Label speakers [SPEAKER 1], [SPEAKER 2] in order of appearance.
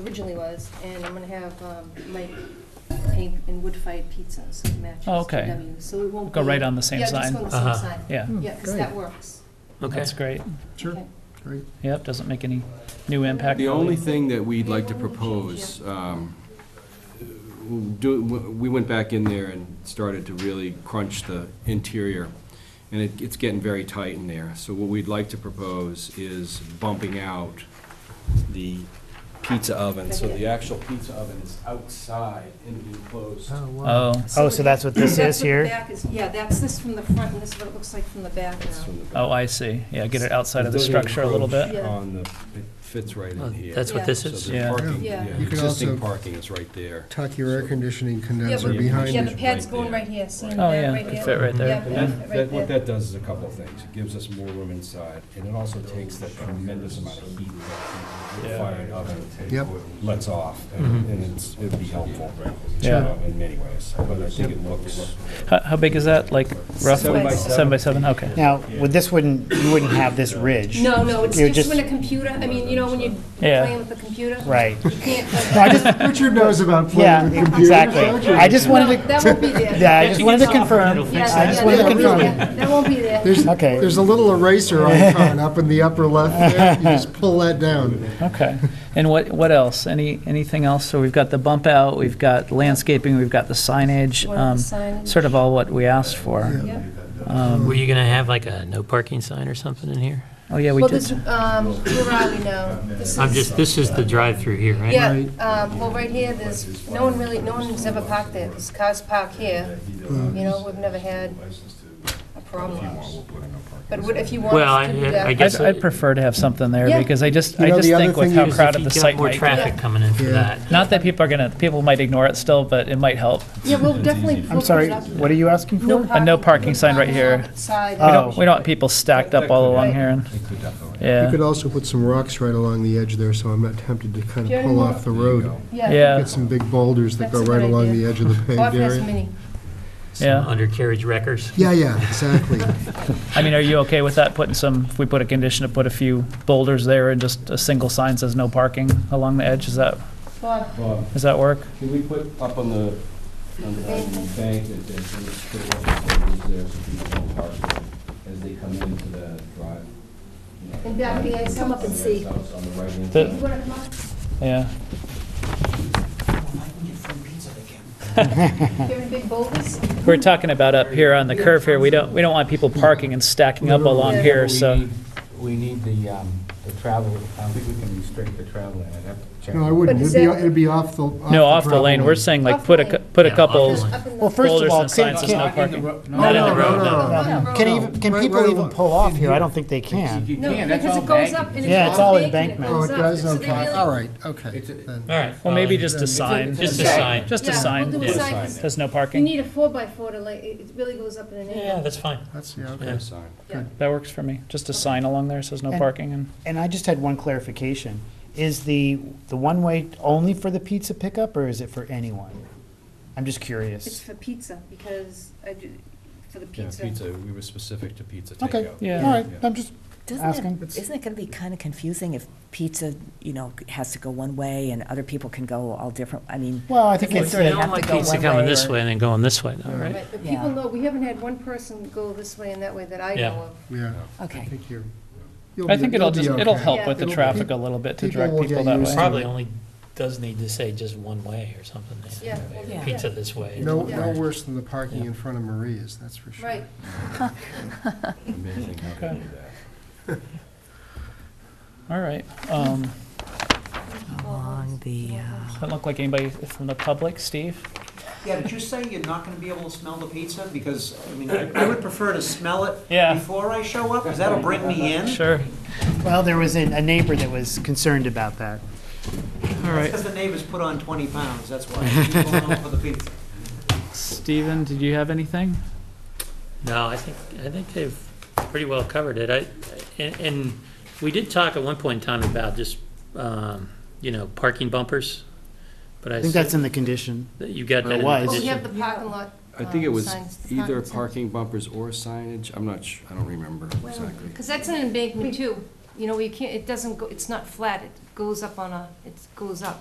[SPEAKER 1] originally was, and I'm gonna have um, Mike paint and wood fired pizza, so it matches
[SPEAKER 2] Oh, okay.
[SPEAKER 1] DW, so it won't
[SPEAKER 2] Go
[SPEAKER 1] be-
[SPEAKER 2] right on the same
[SPEAKER 1] Yeah, just
[SPEAKER 2] sign.
[SPEAKER 1] on the same
[SPEAKER 3] Uh-huh.
[SPEAKER 1] sign.
[SPEAKER 2] Yeah, Hmm,
[SPEAKER 1] Yeah, because that works.
[SPEAKER 3] Okay.
[SPEAKER 2] that's great.
[SPEAKER 4] Sure.
[SPEAKER 1] Okay.
[SPEAKER 4] Great.
[SPEAKER 2] Yep, doesn't make any new impact.
[SPEAKER 5] The
[SPEAKER 2] really.
[SPEAKER 5] only thing that we'd like to propose, um, do, we went back in there and started to really crunch the interior, and it, it's getting very tight in there. So what we'd like to propose is bumping out the pizza oven, so the actual pizza oven is outside in the enclosed.
[SPEAKER 2] Oh,
[SPEAKER 6] Oh, so that's what this
[SPEAKER 1] That's what
[SPEAKER 6] is
[SPEAKER 1] the
[SPEAKER 6] here?
[SPEAKER 1] back is- Yeah, that's this from the front, and this is what it looks like from the back
[SPEAKER 5] That's
[SPEAKER 1] now.
[SPEAKER 5] from the back.
[SPEAKER 2] oh, I see. Yeah, get it outside of the
[SPEAKER 5] It doesn't
[SPEAKER 2] structure a little
[SPEAKER 5] encroach
[SPEAKER 2] bit.
[SPEAKER 1] Yeah.
[SPEAKER 5] On the, it fits right
[SPEAKER 3] Oh,
[SPEAKER 5] in here.
[SPEAKER 3] That's
[SPEAKER 1] Yeah.
[SPEAKER 3] what this
[SPEAKER 5] So
[SPEAKER 3] is?
[SPEAKER 5] the
[SPEAKER 2] Yeah.
[SPEAKER 5] parking-
[SPEAKER 1] Yeah.
[SPEAKER 5] yeah,
[SPEAKER 4] You could
[SPEAKER 5] Existing
[SPEAKER 4] also-
[SPEAKER 5] parking is right there.
[SPEAKER 4] Tuck your air conditioning
[SPEAKER 1] Yeah,
[SPEAKER 4] condenser
[SPEAKER 1] but-
[SPEAKER 4] behind
[SPEAKER 1] Yeah, the
[SPEAKER 4] it.
[SPEAKER 1] pad's
[SPEAKER 5] Right
[SPEAKER 1] going
[SPEAKER 5] there.
[SPEAKER 1] right here, see that
[SPEAKER 2] Oh, yeah,
[SPEAKER 1] right
[SPEAKER 2] could
[SPEAKER 1] there?
[SPEAKER 2] fit right there.
[SPEAKER 1] Yeah,
[SPEAKER 5] And
[SPEAKER 1] pad
[SPEAKER 5] that,
[SPEAKER 1] fit
[SPEAKER 5] that,
[SPEAKER 1] right
[SPEAKER 5] what
[SPEAKER 1] there.
[SPEAKER 5] that does is a couple of things. It gives us more room inside, and it also takes that tremendous amount of heat that the fired oven
[SPEAKER 4] Yep.
[SPEAKER 5] lets off, and and it's, it'd be helpful
[SPEAKER 2] Mm-hmm. Yeah.
[SPEAKER 5] uh, in many ways, but I think it looks.
[SPEAKER 2] How, how big is that? Like roughly
[SPEAKER 1] by seven.
[SPEAKER 2] by seven. Okay.
[SPEAKER 6] Now, with this wouldn't, you wouldn't have this ridge.
[SPEAKER 1] No, no, it's
[SPEAKER 6] You
[SPEAKER 1] just when a computer, I mean, you know, when you're
[SPEAKER 2] Yeah.
[SPEAKER 1] playing with the computer?
[SPEAKER 6] Right.
[SPEAKER 1] You can't,
[SPEAKER 6] No, I
[SPEAKER 1] like,
[SPEAKER 6] just, uh,
[SPEAKER 4] Richard knows about
[SPEAKER 6] yeah,
[SPEAKER 4] playing with computers.
[SPEAKER 6] exactly. I just
[SPEAKER 1] no,
[SPEAKER 6] wanted to,
[SPEAKER 1] that won't be there.
[SPEAKER 6] yeah, I just wanted to confirm.
[SPEAKER 1] Yeah,
[SPEAKER 6] I just
[SPEAKER 1] yeah,
[SPEAKER 6] wanted to
[SPEAKER 1] that won't be
[SPEAKER 6] confirm.
[SPEAKER 1] there. That won't be there.
[SPEAKER 4] There's,
[SPEAKER 6] Okay.
[SPEAKER 4] there's a little eraser icon up in the upper left there. You just pull that down.
[SPEAKER 2] Okay. And what what else? Any anything else? So we've got the bump out. We've got landscaping. We've got the signage.
[SPEAKER 1] What are
[SPEAKER 2] Um,
[SPEAKER 1] the signage?
[SPEAKER 2] sort of all what we asked for. Um,
[SPEAKER 1] Yeah.
[SPEAKER 3] Were you gonna have like a no parking sign or something in here?
[SPEAKER 2] Oh yeah, we
[SPEAKER 1] Well,
[SPEAKER 2] did.
[SPEAKER 1] this, um, where are we now? This
[SPEAKER 3] I'm
[SPEAKER 1] is-
[SPEAKER 3] just, this is the drive-through here, right?
[SPEAKER 1] Yeah, um, well, right here, there's, no one really, no one's ever parked there, there's cars parked here, you know, we've never had a problem. But what- if you want
[SPEAKER 3] Well,
[SPEAKER 1] us
[SPEAKER 3] I,
[SPEAKER 1] to do
[SPEAKER 3] I
[SPEAKER 1] that,
[SPEAKER 3] guess.
[SPEAKER 2] I'd, I'd prefer to have something there
[SPEAKER 1] Yeah.
[SPEAKER 2] because I just
[SPEAKER 4] You
[SPEAKER 2] I
[SPEAKER 4] know,
[SPEAKER 2] just
[SPEAKER 4] the other
[SPEAKER 2] think with
[SPEAKER 4] thing
[SPEAKER 2] how
[SPEAKER 4] is if
[SPEAKER 2] crowded the
[SPEAKER 3] If you
[SPEAKER 2] site
[SPEAKER 3] got more
[SPEAKER 2] might be.
[SPEAKER 3] traffic coming in for
[SPEAKER 4] Yeah.
[SPEAKER 3] that.
[SPEAKER 2] Not that people are gonna people might ignore it still, but it might help.
[SPEAKER 1] yeah, we'll definitely.
[SPEAKER 6] I'm sorry, what are you asking for?
[SPEAKER 1] No
[SPEAKER 2] A no parking sign right here.
[SPEAKER 1] Side.
[SPEAKER 2] We
[SPEAKER 6] Oh.
[SPEAKER 2] don't, we don't want people stacked up all along here, and,
[SPEAKER 4] You
[SPEAKER 2] yeah,
[SPEAKER 4] could also put some rocks right along the edge there, so I'm not tempted to kind
[SPEAKER 1] Yeah,
[SPEAKER 4] of pull
[SPEAKER 1] no.
[SPEAKER 4] off the road.
[SPEAKER 2] yeah,
[SPEAKER 4] Get some big boulders that go
[SPEAKER 1] That's a good
[SPEAKER 4] right along
[SPEAKER 1] idea.
[SPEAKER 4] the edge of the
[SPEAKER 1] Bob
[SPEAKER 4] paved
[SPEAKER 1] has
[SPEAKER 4] area.
[SPEAKER 1] many.
[SPEAKER 3] Some
[SPEAKER 2] yeah.
[SPEAKER 3] undercarriage wreckers.
[SPEAKER 4] Yeah, yeah, exactly.
[SPEAKER 2] I mean, are you okay with that, putting some, if we put a condition to put a few boulders there and just a single sign says no parking along the edge, is that,
[SPEAKER 1] Bob,
[SPEAKER 5] Bob,
[SPEAKER 2] does that work?
[SPEAKER 5] can we put up on the, on the on the bank that there's, there's pretty much there so people don't park as they come into the drive? you know,
[SPEAKER 1] and back, yeah, come up and see.
[SPEAKER 5] on the right-hand
[SPEAKER 2] The-
[SPEAKER 5] side.
[SPEAKER 1] You wanna come up?
[SPEAKER 2] Yeah,
[SPEAKER 1] Carrying big boulders?
[SPEAKER 2] we were talking about up here on the curve here, we don't, we don't want people parking and stacking up along here, so,
[SPEAKER 7] We need the, um, the travel, I don't think we can restrict the travel in it. I'd have to check.
[SPEAKER 4] No, I wouldn't.
[SPEAKER 1] But
[SPEAKER 4] It'd
[SPEAKER 1] is
[SPEAKER 4] be,
[SPEAKER 1] that-
[SPEAKER 4] it'd be off the.
[SPEAKER 2] no, off the
[SPEAKER 4] gravel
[SPEAKER 2] lane, we're saying like,
[SPEAKER 1] Off
[SPEAKER 2] put
[SPEAKER 1] the
[SPEAKER 2] a,
[SPEAKER 1] lane.
[SPEAKER 2] put a
[SPEAKER 3] Yeah, off the
[SPEAKER 2] couple
[SPEAKER 3] lane.
[SPEAKER 1] Up in the-
[SPEAKER 6] Well, first of
[SPEAKER 2] boulders
[SPEAKER 6] all,
[SPEAKER 2] and
[SPEAKER 6] can,
[SPEAKER 2] signs says no
[SPEAKER 6] can,
[SPEAKER 2] parking.
[SPEAKER 7] No,
[SPEAKER 2] in the
[SPEAKER 4] No,
[SPEAKER 2] road,
[SPEAKER 4] no, no, no.
[SPEAKER 1] Up the
[SPEAKER 6] Um, can
[SPEAKER 1] road.
[SPEAKER 6] even, can
[SPEAKER 4] Right,
[SPEAKER 6] people
[SPEAKER 4] right
[SPEAKER 6] even
[SPEAKER 4] along-
[SPEAKER 6] pull off here? I don't think they can.
[SPEAKER 7] You
[SPEAKER 1] No,
[SPEAKER 7] can, that's
[SPEAKER 1] because
[SPEAKER 7] all
[SPEAKER 1] it goes
[SPEAKER 7] banked.
[SPEAKER 1] up and it's.
[SPEAKER 6] Yeah, it's all embankment.
[SPEAKER 4] Oh, it does,
[SPEAKER 1] So they
[SPEAKER 4] okay,
[SPEAKER 1] really-
[SPEAKER 4] all right, okay. then.
[SPEAKER 3] All right.
[SPEAKER 2] Well, maybe just a sign,
[SPEAKER 3] Just a sign.
[SPEAKER 2] just a
[SPEAKER 1] Yeah,
[SPEAKER 2] sign,
[SPEAKER 1] we'll do a sign, 'cause
[SPEAKER 2] says no
[SPEAKER 1] You
[SPEAKER 2] parking,
[SPEAKER 1] need a four by four to like, it it really goes up in an
[SPEAKER 3] Yeah,
[SPEAKER 1] angle.
[SPEAKER 3] that's fine.
[SPEAKER 4] That's, yeah, okay.
[SPEAKER 3] Yeah.
[SPEAKER 5] Sign.
[SPEAKER 2] that works for me, just a sign along there says no
[SPEAKER 6] And-
[SPEAKER 2] parking and.
[SPEAKER 6] And I just had one clarification. Is the, the one-way only for the pizza pickup, or is it for anyone? I'm just
[SPEAKER 1] It's
[SPEAKER 6] curious.
[SPEAKER 1] for pizza, because I do, for the
[SPEAKER 5] Yeah,
[SPEAKER 1] pizza.
[SPEAKER 5] pizza, we were specific to pizza takeout.
[SPEAKER 6] Okay,
[SPEAKER 2] Yeah.
[SPEAKER 6] all right, I'm just asking.
[SPEAKER 8] Doesn't it, isn't it going to be kind of confusing if pizza, you know, has to go one way and other people can go all different, I mean.
[SPEAKER 6] Well, I think
[SPEAKER 8] Well,
[SPEAKER 6] it's,
[SPEAKER 8] you
[SPEAKER 3] You
[SPEAKER 8] They
[SPEAKER 6] a-
[SPEAKER 8] know-
[SPEAKER 3] don't
[SPEAKER 8] have
[SPEAKER 3] want
[SPEAKER 8] to go
[SPEAKER 3] pizza
[SPEAKER 8] one
[SPEAKER 3] coming
[SPEAKER 8] way
[SPEAKER 3] this
[SPEAKER 8] or-
[SPEAKER 3] way and then going this way, though, right?
[SPEAKER 1] Right, but people
[SPEAKER 8] Yeah.
[SPEAKER 1] know, we haven't had one person go this way and that way that I
[SPEAKER 3] Yeah.
[SPEAKER 1] know of.
[SPEAKER 4] Yeah, I
[SPEAKER 8] Okay.
[SPEAKER 4] think you're. you'll
[SPEAKER 2] I
[SPEAKER 4] be-
[SPEAKER 2] think
[SPEAKER 4] you'll
[SPEAKER 2] it'll
[SPEAKER 4] be
[SPEAKER 2] just, it'll
[SPEAKER 4] okay.
[SPEAKER 2] help with the
[SPEAKER 4] It'll-
[SPEAKER 2] traffic a little bit to
[SPEAKER 4] people
[SPEAKER 2] direct
[SPEAKER 4] will
[SPEAKER 2] people
[SPEAKER 4] get
[SPEAKER 2] that
[SPEAKER 4] used
[SPEAKER 2] way.
[SPEAKER 4] to-
[SPEAKER 3] Probably only does need to say just one way or something.
[SPEAKER 1] Yeah,
[SPEAKER 3] Or
[SPEAKER 1] yeah.
[SPEAKER 3] Pizza this way.
[SPEAKER 4] No, no worse than the parking in front of Maria's, that's for sure.
[SPEAKER 1] Right,
[SPEAKER 5] Amazing how they do that.
[SPEAKER 2] All right. Um,
[SPEAKER 8] Along the,
[SPEAKER 1] Oh,
[SPEAKER 8] uh,
[SPEAKER 2] doesn't look like anybody from the public, Steve?
[SPEAKER 9] Yeah, did you say you're not gonna be able to smell the pizza? Because, I mean, I I would prefer to smell it
[SPEAKER 2] Uh, Yeah.
[SPEAKER 9] before I show up, because that'll bring me in.
[SPEAKER 2] Sure.
[SPEAKER 6] well, there was a a neighbor that was concerned about that.
[SPEAKER 2] All right.
[SPEAKER 9] Because the neighbors put on twenty pounds, that's why. Keep going on for the pizza.
[SPEAKER 2] Steven, did you have anything?
[SPEAKER 3] No, I think, I think they've pretty well covered it. I, and, and we did talk at one point in time about just, um, you know, parking bumpers. But I.
[SPEAKER 6] I think that's in the condition.
[SPEAKER 3] that You got
[SPEAKER 6] Or
[SPEAKER 3] that in the
[SPEAKER 6] was.
[SPEAKER 1] well, we
[SPEAKER 3] condition.
[SPEAKER 1] have the parking lot.
[SPEAKER 5] I think it
[SPEAKER 1] um,
[SPEAKER 5] was
[SPEAKER 1] signs,
[SPEAKER 5] either
[SPEAKER 1] signs.
[SPEAKER 5] parking bumpers or signage, I'm not su, I don't remember exactly.
[SPEAKER 1] Because that's an embankment too, you know, you can't, it doesn't go, it's not flat, it goes up on a, it goes up.